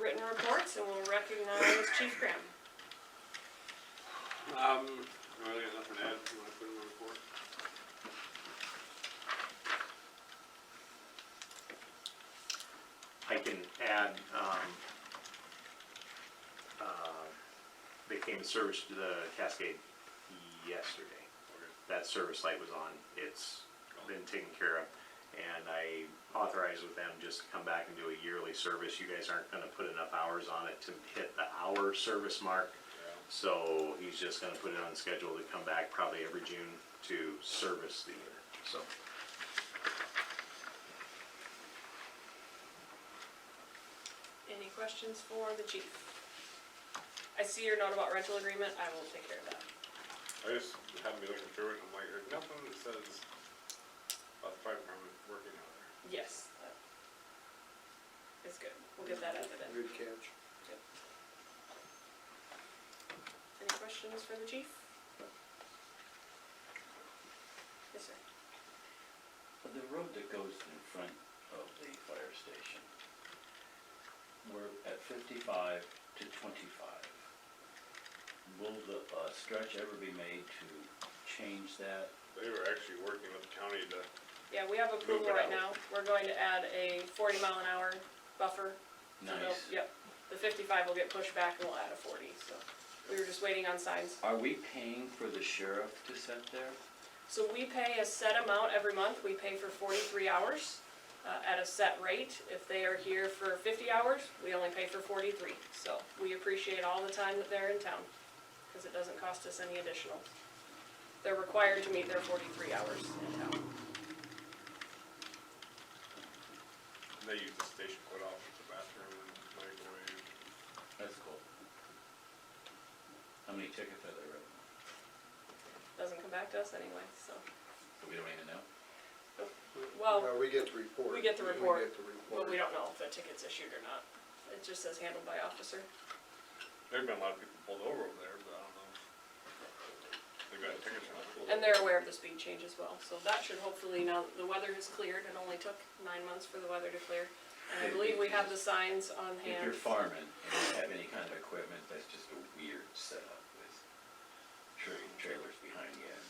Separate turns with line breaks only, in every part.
written reports, and we'll recognize Chief Graham.
Um, I really got nothing to add, you wanna put in the report?
I can add, um, uh, they came to service to the Cascade yesterday. That service light was on, it's been taken care of. And I authorized with them just to come back and do a yearly service. You guys aren't gonna put enough hours on it to hit the hour service mark. So he's just gonna put it on schedule to come back probably every June to service the unit, so.
Any questions for the chief? I see your note about rental agreement, I will take care of that.
I just happened to be looking through it, and I'm like, there's nothing that says about the fire department working out there.
Yes. It's good, we'll get that out of it.
Good catch.
Any questions for the chief? Yes, sir.
The road that goes in front of the fire station, we're at fifty-five to twenty-five. Will the uh, stretch ever be made to change that?
They were actually working with the county to,
Yeah, we have approval
Move it
right
out.
now. We're going to add a forty mile an hour buffer. So they'll-
Nice.
Yep. The fifty-five will get pushed back and we'll add a forty, so. We were just waiting on signs.
Are we paying for the sheriff to sit there?
So we pay a set amount every month. We pay for forty-three hours uh, at a set rate. If they are here for fifty hours, we only pay for forty-three. So we appreciate all the time that they're in town because it doesn't cost us any additional. They're required to meet their forty-three hours in town.
they use the station quite often for bathroom and microwave.
That's cool. How many tickets are there? written?
Doesn't come back to us anyway, so.
We don't even know.
Well,
No, we get the
Oh.
report.
we get the
We
report,
get the report.
But we don't know if the ticket's issued or not. It just says handled by officer.
There've been a lot of people pulled over over there, but I don't know. They got tickets on it.
And they're aware of the speed change as well, so that should hopefully, now that the weather has cleared, it only took nine months for the weather to clear. And I believe we have the signs on
If
hand.
you're farming and you have any kind of equipment, that's just a weird setup with tra- trailers behind you and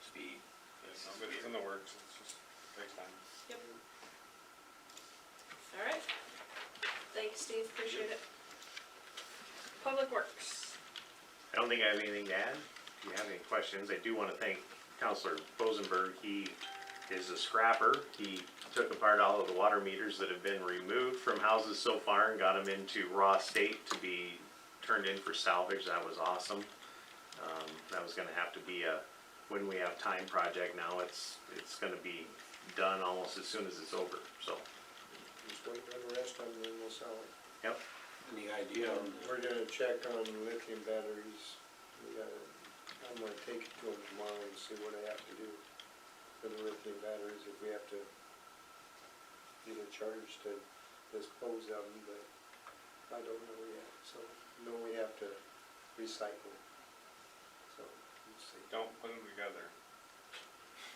speed.
Yeah, no, but it's in the works, it's just, takes time.
Yep. All right. Thanks, Steve, appreciate it. Public Works.
I don't think I have anything to add. If you have any questions, I do want to thank Counselor Bozenberg. He is a scrapper. He took apart all of the water meters that have been removed from houses so far and got them into raw state to be turned in for salvage. That was awesome. Um, that was gonna have to be a, when we have time project now, it's, it's gonna be done almost as soon as it's over, so,
Just wait on the rest of them, then we'll sell it. Um,
yep.
Any idea on the
We're gonna check on lithium batteries. We gotta, I'm gonna take it to them tomorrow and see what I have to do for the lithium batteries, if we have to get a charge to dispose of them, but I don't know yet, so, no, we have to recycle. So, let's see.
Don't put them together.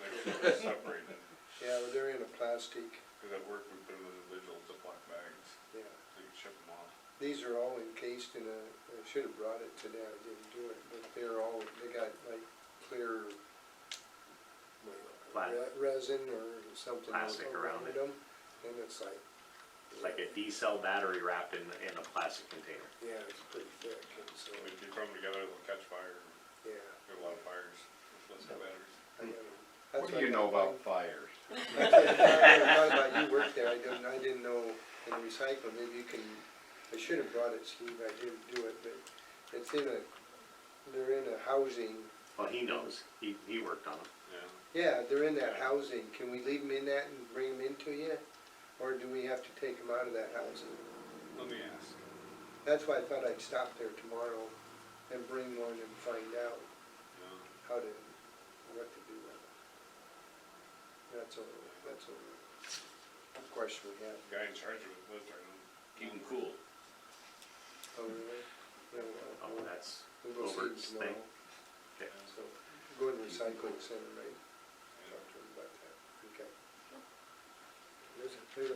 Make sure they're separated,
Yeah, but they're in a plastic,
cause at work we put them in individual Ziploc bags,
yeah.
so you can ship them off.
These are all encased in a, I should have brought it today, I didn't do it, but they're all, they got like clear
Pla-
re- resin or something
Plastic around
around
it.
them, and it's like,
Like a D cell battery wrapped in, in a plastic container.
yeah, it's pretty thick, and so,
If you throw them together, they'll catch fire,
yeah.
there's a lot of fires, with lithium batteries.
I gotta-
Hmm. What
that's
do you
I-
know about fires?
I thought about you worked there, I didn't, I didn't know in recycling, maybe you can, I should have brought it, Steve, I didn't do it, but it's in a, they're in a housing
Well, he knows. He, he worked on them.
Yeah.
Yeah, they're in that housing, can we leave them in that and bring them into you? Or do we have to take them out of that housing?
Let me ask.
That's why I thought I'd stop there tomorrow and bring one and find out
Yeah.
how to, what to do with it. That's all, that's all the question we have.
The guy in charge of it lives right now.
Keep them cool.
Oh, really? No, uh,
Oh,
we'll-
that's
We'll go see them
Robert's thing.
tomorrow,
Okay.
so, go to the recycling center, right? Talk to them about that, okay. There's a- there's a